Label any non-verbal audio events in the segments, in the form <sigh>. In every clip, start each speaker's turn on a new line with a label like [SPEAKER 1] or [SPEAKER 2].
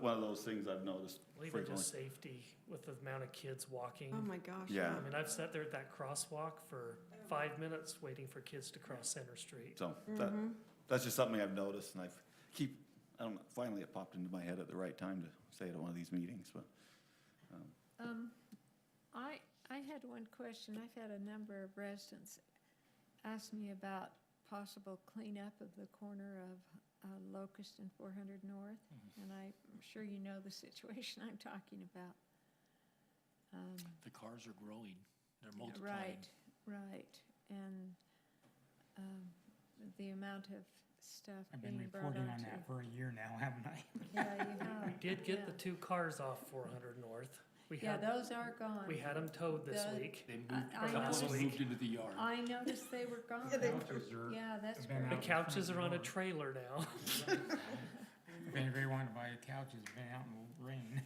[SPEAKER 1] one of those things I've noticed
[SPEAKER 2] Well, even
[SPEAKER 1] frequently.
[SPEAKER 2] just safety with the amount of kids walking.
[SPEAKER 3] Oh, my gosh.
[SPEAKER 1] Yeah.
[SPEAKER 2] I mean, I've sat there at that crosswalk for five minutes waiting for kids to cross Center Street.
[SPEAKER 1] So that, that's just something I've noticed and I've keep, I don't, know, finally it popped into my head at the right time to say it at one of these meetings, but.
[SPEAKER 4] Um, I, I had one question. I've had a number of residents ask me about possible cleanup of the corner of uh, Locust and four hundred North.
[SPEAKER 2] Mm-hmm.
[SPEAKER 4] And I'm sure you know the situation I'm talking about. Um,
[SPEAKER 5] The cars are growing, they're multiplying.
[SPEAKER 4] Right, right. And, um, the amount of stuff
[SPEAKER 6] I've been
[SPEAKER 4] being brought
[SPEAKER 6] reporting on
[SPEAKER 4] onto.
[SPEAKER 6] that for a year now, <laughs> haven't I?
[SPEAKER 4] <laughs> Yeah, you have.
[SPEAKER 2] We did get the
[SPEAKER 4] yeah.
[SPEAKER 2] two cars off four hundred north. We
[SPEAKER 4] Yeah,
[SPEAKER 2] had,
[SPEAKER 4] those are gone.
[SPEAKER 2] we had them towed this
[SPEAKER 4] The-
[SPEAKER 2] week.
[SPEAKER 5] They moved,
[SPEAKER 4] I
[SPEAKER 5] a couple of
[SPEAKER 2] noticed.
[SPEAKER 5] them moved into the yard.
[SPEAKER 4] I noticed they were gone.
[SPEAKER 3] Yeah, they
[SPEAKER 4] Yeah, that's
[SPEAKER 6] Been
[SPEAKER 2] The
[SPEAKER 4] great.
[SPEAKER 6] out.
[SPEAKER 2] couches
[SPEAKER 6] front
[SPEAKER 2] are on a
[SPEAKER 6] door.
[SPEAKER 2] trailer now.
[SPEAKER 6] If anybody wanted to buy a couch, it's been out in the rain.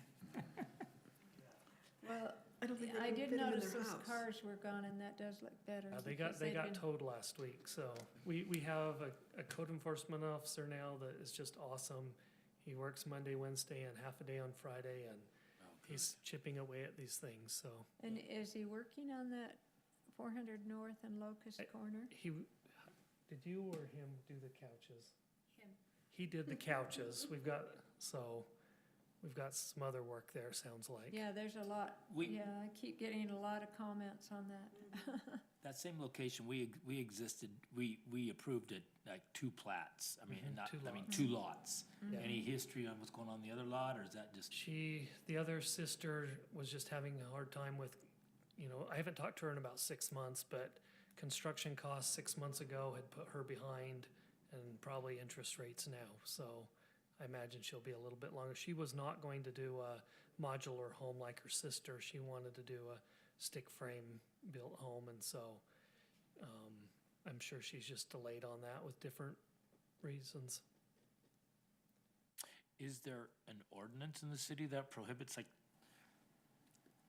[SPEAKER 4] Well,
[SPEAKER 3] I don't think
[SPEAKER 4] I
[SPEAKER 3] they can fit them
[SPEAKER 4] did
[SPEAKER 3] in
[SPEAKER 4] notice
[SPEAKER 3] their
[SPEAKER 4] those
[SPEAKER 3] house.
[SPEAKER 4] cars were gone and that does look better.
[SPEAKER 2] Uh, <laughs> They
[SPEAKER 4] because
[SPEAKER 2] got, they
[SPEAKER 4] they'd
[SPEAKER 2] got
[SPEAKER 4] been-
[SPEAKER 2] towed last week, so we, we have a, a code enforcement officer now that is just awesome. He works Monday, Wednesday, and half a day on Friday, and he's chipping away at these things, so.
[SPEAKER 4] And is he working on that four hundred north and Locust
[SPEAKER 2] I-
[SPEAKER 4] Corner?
[SPEAKER 2] He, did you or him do the couches?
[SPEAKER 4] Him.
[SPEAKER 2] He did the couches. We've got, so, we've got some other work there, sounds like.
[SPEAKER 4] Yeah, there's a lot,
[SPEAKER 5] We,
[SPEAKER 4] yeah, I keep getting a lot of comments on that. <laughs>
[SPEAKER 5] that same location, we, ex- we existed, we, we approved it, like two plats, I mean,
[SPEAKER 2] Mhm,
[SPEAKER 5] and not,
[SPEAKER 2] two
[SPEAKER 5] I mean,
[SPEAKER 2] lots.
[SPEAKER 4] Mm-hmm.
[SPEAKER 5] two lots.
[SPEAKER 2] Yeah.
[SPEAKER 5] Any history on what's going on in the other lot, or is that just?
[SPEAKER 2] She, the other sister was just having a hard time with, you know, I haven't talked to her in about six months, but construction costs six months ago had put her behind and probably interest rates now. So I imagine she'll be a little bit longer. She was not going to do a modular home like her sister. She wanted to do a stick frame built home. And so um, I'm sure she's just delayed on that with different reasons.
[SPEAKER 5] Is there an ordinance in the city that prohibits like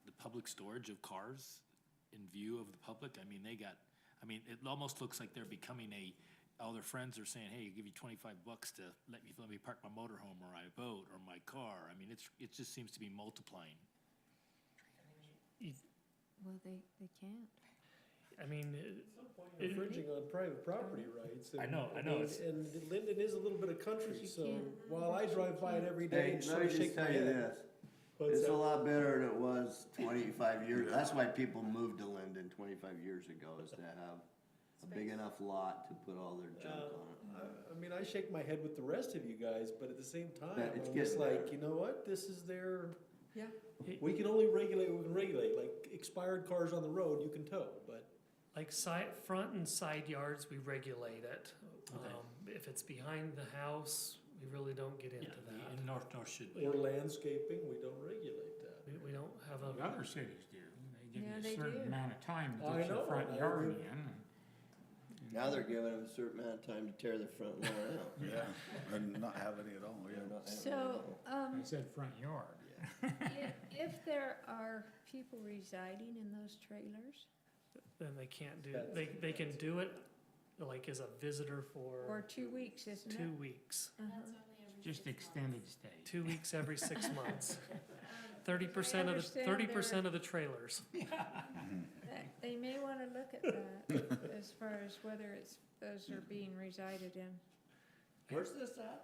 [SPEAKER 5] the public storage of cars in view of the public? I mean, they got, I mean, it almost looks like they're becoming a, all their friends are saying, hey, give you twenty-five bucks to let me, let me park my motorhome or I boat or my car. I mean, it's, it just seems to be multiplying.
[SPEAKER 4] Well, they, they can't.
[SPEAKER 2] I mean, it-
[SPEAKER 7] infringing on private property rights. and-
[SPEAKER 5] I know, I know,
[SPEAKER 7] mean,
[SPEAKER 5] it's-
[SPEAKER 7] And Linden is a little bit of country,
[SPEAKER 4] You
[SPEAKER 7] so
[SPEAKER 4] can't.
[SPEAKER 7] while I drive by it every day
[SPEAKER 8] Hey,
[SPEAKER 7] and
[SPEAKER 8] let
[SPEAKER 7] sort
[SPEAKER 8] me
[SPEAKER 7] of
[SPEAKER 8] just
[SPEAKER 7] shake my
[SPEAKER 8] tell you
[SPEAKER 7] head.
[SPEAKER 8] this,
[SPEAKER 7] but,
[SPEAKER 8] it's a
[SPEAKER 7] uh,
[SPEAKER 8] lot better than it was twenty-five years, that's why people moved to Linden twenty-five years ago, is to have a big enough lot to put all their junk
[SPEAKER 7] Uh,
[SPEAKER 8] on it.
[SPEAKER 7] I- I mean, I shake my head with the rest of you guys, but at the same
[SPEAKER 8] Yeah,
[SPEAKER 7] time,
[SPEAKER 8] it's
[SPEAKER 7] I'm just
[SPEAKER 8] getting there.
[SPEAKER 7] like, you know what, this is their,
[SPEAKER 3] Yeah.
[SPEAKER 7] we can only regulate, what we can regulate, like expired cars on the road, you can tow, but.
[SPEAKER 2] Like side, front and side yards, we regulate it. Um, if it's behind the house, we really don't get into that.
[SPEAKER 5] In North, North should be.
[SPEAKER 7] Or landscaping, we don't regulate that.
[SPEAKER 2] We, we don't have a.
[SPEAKER 6] Other cities do. They
[SPEAKER 4] Yeah,
[SPEAKER 6] give you
[SPEAKER 4] they
[SPEAKER 6] a certain
[SPEAKER 4] do.
[SPEAKER 6] amount of time
[SPEAKER 7] I
[SPEAKER 6] to get
[SPEAKER 7] know,
[SPEAKER 6] your front
[SPEAKER 7] I
[SPEAKER 6] yard
[SPEAKER 7] agree.
[SPEAKER 6] in. and-
[SPEAKER 8] Now they're giving them a certain amount of time to tear their front lawn out.
[SPEAKER 1] Yeah. <laughs> And not have any at all, Oh, yeah.
[SPEAKER 8] They're not having
[SPEAKER 4] So,
[SPEAKER 8] it.
[SPEAKER 4] um,
[SPEAKER 6] I said front yard.
[SPEAKER 4] i- if there are people residing in those trailers
[SPEAKER 2] Then they can't do, they, they can do it like as a visitor
[SPEAKER 4] for
[SPEAKER 2] for
[SPEAKER 4] two weeks, isn't it?
[SPEAKER 2] two weeks.
[SPEAKER 4] Uh-huh.
[SPEAKER 6] Just extended stay.
[SPEAKER 2] Two weeks every
[SPEAKER 4] <laughs>
[SPEAKER 2] six months. Thirty percent of the,
[SPEAKER 4] Um, understand
[SPEAKER 2] thirty percent of the trailers.
[SPEAKER 4] That- They may want to look at
[SPEAKER 2] <laughs>
[SPEAKER 4] that as far as whether it's, those are being resided in.
[SPEAKER 8] Where's this at?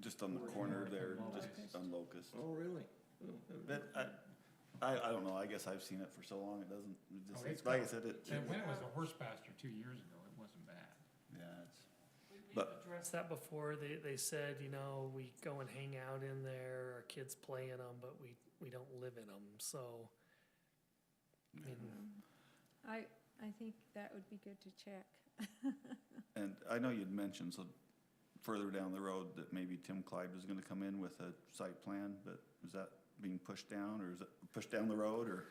[SPEAKER 1] Just on the corner there, just on Locust.
[SPEAKER 8] Oh, really?
[SPEAKER 7] Hmm.
[SPEAKER 1] But I, I, I don't know, I guess I've seen it for so long, it doesn't, it
[SPEAKER 6] Oh, it's
[SPEAKER 1] just, like I
[SPEAKER 6] gone.
[SPEAKER 1] said, it,
[SPEAKER 6] And when it was a horse pasture two years ago, it wasn't bad.
[SPEAKER 1] yeah, it's. But-
[SPEAKER 2] Addressed that before, they, they said, you know, we go and hang out in there, our kids play in them, but we, we don't live in them, so. I mean,
[SPEAKER 4] Mm. I, I think that would be good to check.
[SPEAKER 1] And I know you'd mentioned, so further down the road, that maybe Tim Clyde was gonna come in with a site plan, but is that being pushed down, or is it pushed down the road, or,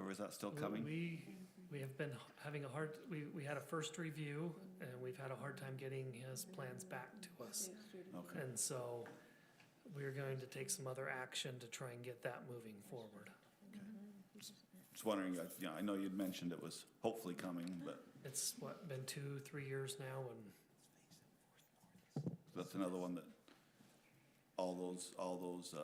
[SPEAKER 1] or is that still
[SPEAKER 2] We-
[SPEAKER 1] coming?
[SPEAKER 2] We, we have been h- having a hard, we, we had a first review, and we've had a hard time getting his plans back to us.
[SPEAKER 1] Okay,
[SPEAKER 2] And so we're going to take some other action to try and get that moving forward.
[SPEAKER 1] just wondering, I- you know, I know you'd mentioned it was hopefully coming, but
[SPEAKER 2] It's what, been two, three years now, and
[SPEAKER 1] that's another one that all those, all those, uh,